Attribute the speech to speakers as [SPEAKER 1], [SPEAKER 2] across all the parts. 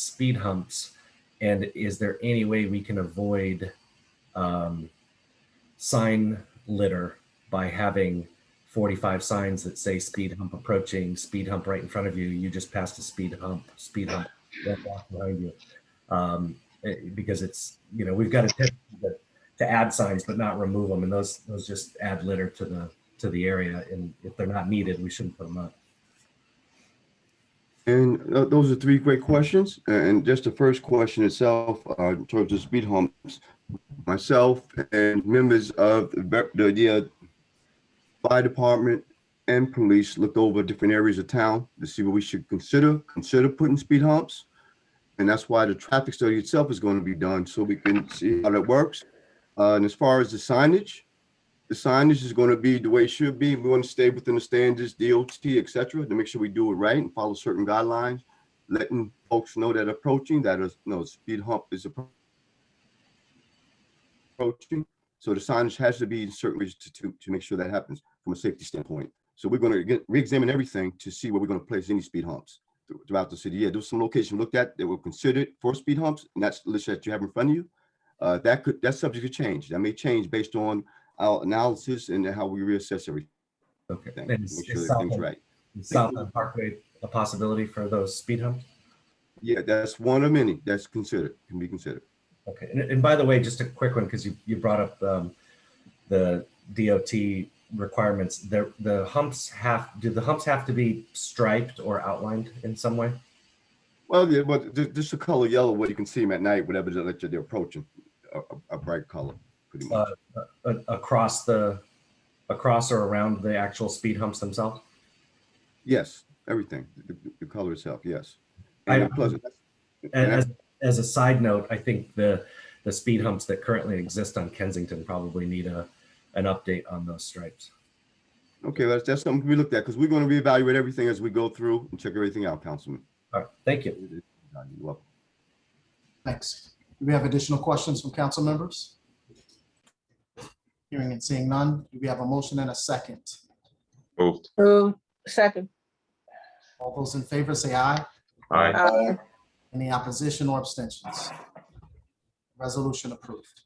[SPEAKER 1] speed humps? And is there any way we can avoid um, sign litter by having 45 signs that say speed hump approaching, speed hump right in front of you, you just passed a speed hump, speed hump right back behind you? Um, eh, because it's, you know, we've got a tendency to- to add signs but not remove them, and those those just add litter to the to the area. And if they're not needed, we shouldn't put them up.
[SPEAKER 2] And tho- those are three great questions. And just the first question itself, uh, in terms of speed humps, myself and members of the, ver- the, yeah, fire department and police looked over different areas of town to see what we should consider, consider putting speed humps. And that's why the traffic study itself is going to be done, so we can see how that works. Uh, and as far as the signage, the signage is going to be the way it should be. We want to stay within the standards, DOT, et cetera, to make sure we do it right and follow certain guidelines, letting folks know that approaching, that is, no, speed hump is appro- approaching. So the signage has to be in certain ways to, to, to make sure that happens from a safety standpoint. So we're going to get, reexamine everything to see where we're going to place any speed humps thr- throughout the city. Yeah, there's some location looked at that were considered for speed humps, and that's the list that you have in front of you. Uh, that could, that subject could change. That may change based on our analysis and how we reassess everything,
[SPEAKER 1] Okay. And
[SPEAKER 2] make
[SPEAKER 1] is-
[SPEAKER 2] sure
[SPEAKER 1] is
[SPEAKER 2] that
[SPEAKER 1] Southland-
[SPEAKER 2] things right.
[SPEAKER 1] is Southland Parkway a possibility for those speed humps?
[SPEAKER 2] Yeah, that's one of many that's considered, can be considered.
[SPEAKER 1] Okay, and, and by the way, just a quick one, because you, you brought up, um, the DOT requirements, the, the humps have, do the humps have to be striped or outlined in some way?
[SPEAKER 2] Well, yeah, but ju- just the color yellow, where you can see them at night, whatever direction they're approaching, a, a- a bright color, pretty much.
[SPEAKER 1] A- uh, Across the, across or around the actual speed humps themselves?
[SPEAKER 2] Yes, everything, the- the, the color itself, yes.
[SPEAKER 1] I-
[SPEAKER 2] And then plus, and
[SPEAKER 1] And
[SPEAKER 2] that's-
[SPEAKER 1] as, as a side note, I think the, the speed humps that currently exist on Kensington probably need a, an update on those stripes.
[SPEAKER 2] okay, that's, that's something we looked at, because we're going to reevaluate everything as we go through and check everything out, Councilman.
[SPEAKER 1] All right, thank you.
[SPEAKER 2] You're welcome.
[SPEAKER 3] Thanks. Do we have additional questions from council members? Hearing and seeing none, do we have a motion and a second?
[SPEAKER 4] Moved.
[SPEAKER 5] Move, second.
[SPEAKER 3] All those in favor say aye.
[SPEAKER 4] Aye.
[SPEAKER 5] Aye.
[SPEAKER 3] Any opposition or abstentions? Resolution approved.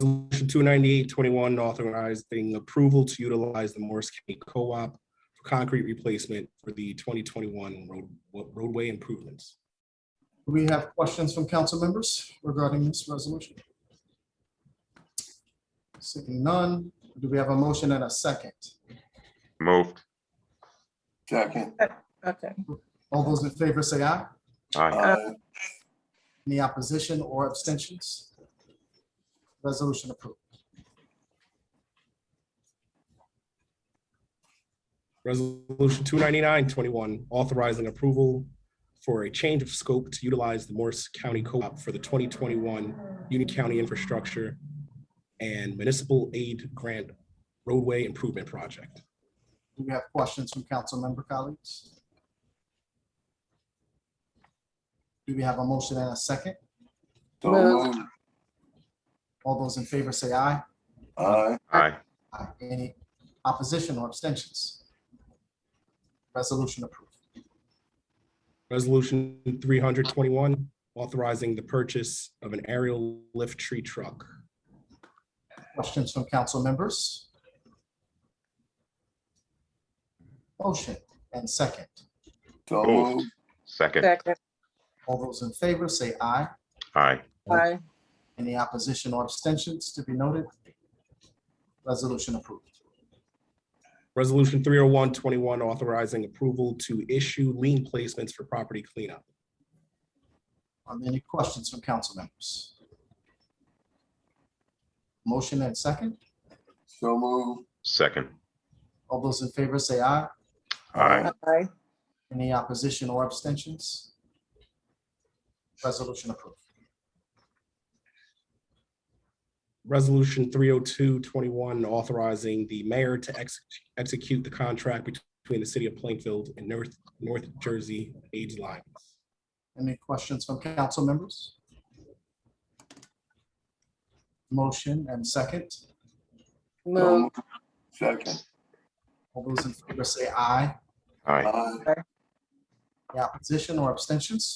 [SPEAKER 6] Resolution two ninety-eight twenty-one authorizing approval to utilize the Morris County Co-op for concrete replacement for the twenty twenty-one road, roadway improvements.
[SPEAKER 3] Do we have questions from council members regarding this resolution? Seeing none, do we have a motion and a second?
[SPEAKER 4] Moved.
[SPEAKER 7] Second.
[SPEAKER 5] Okay.
[SPEAKER 3] All those in favor say aye.
[SPEAKER 4] Aye.
[SPEAKER 7] Aye.
[SPEAKER 3] Any opposition or abstentions? Resolution approved.
[SPEAKER 6] Resolution two ninety-nine twenty-one authorizing approval for a change of scope to utilize the Morris County Co-op for the twenty twenty-one Union County Infrastructure and Municipal Aid Grant Roadway Improvement Project.
[SPEAKER 3] Do we have questions from council member colleagues? Do we have a motion and a second?
[SPEAKER 7] So
[SPEAKER 5] Moved.
[SPEAKER 7] moved.
[SPEAKER 3] All those in favor say aye.
[SPEAKER 7] Aye.
[SPEAKER 4] Aye.
[SPEAKER 3] Aye. Any opposition or abstentions? Resolution approved.
[SPEAKER 6] Resolution three hundred twenty-one, authorizing the purchase of an aerial lift tree truck.
[SPEAKER 3] Questions from council members? Motion and second.
[SPEAKER 7] So
[SPEAKER 4] Moved.
[SPEAKER 7] moved.
[SPEAKER 4] Second.
[SPEAKER 5] Second.
[SPEAKER 3] All those in favor say aye.
[SPEAKER 4] Aye.
[SPEAKER 5] Aye.
[SPEAKER 3] Any opposition or abstentions to be noted? Resolution approved.
[SPEAKER 6] Resolution three oh one twenty-one, authorizing approval to issue lien placements for property cleanup.
[SPEAKER 3] Are there any questions from council members? Motion and second.
[SPEAKER 7] So moved.
[SPEAKER 4] Second.
[SPEAKER 3] All those in favor say aye.
[SPEAKER 4] Aye.
[SPEAKER 5] Aye.
[SPEAKER 3] Any opposition or abstentions? Resolution approved.
[SPEAKER 6] Resolution three oh two twenty-one, authorizing the mayor to ex- execute the contract between the city of Plainfield and North, North Jersey Age Alliance.
[SPEAKER 3] Any questions from council members? Motion and second.
[SPEAKER 7] So
[SPEAKER 5] Move,
[SPEAKER 7] moved. Second.
[SPEAKER 3] All those in favor say aye.
[SPEAKER 4] Aye.
[SPEAKER 7] Aye.
[SPEAKER 3] Any opposition or abstentions?